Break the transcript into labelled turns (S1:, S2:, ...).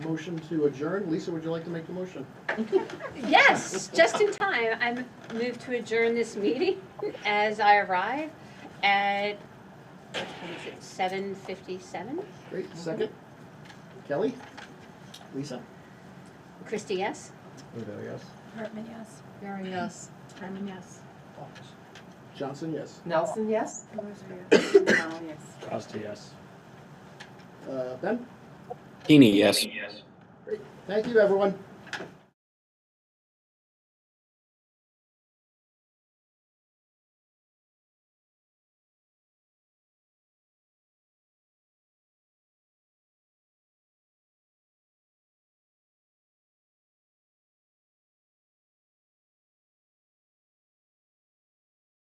S1: motion to adjourn. Lisa, would you like to make the motion?
S2: Yes, just in time. I'm moved to adjourn this meeting as I arrive at, what time is it, seven fifty-seven?
S1: Great, second. Kelly? Lisa?
S2: Christie, yes?
S1: Anybody else?
S3: Hartman, yes.
S4: Mary, yes.
S3: Hartman, yes.
S1: Johnson, yes.
S4: Nelson, yes?
S5: Costa, yes.
S1: Uh, Ben?
S6: Heaney, yes.
S1: Thank you, everyone.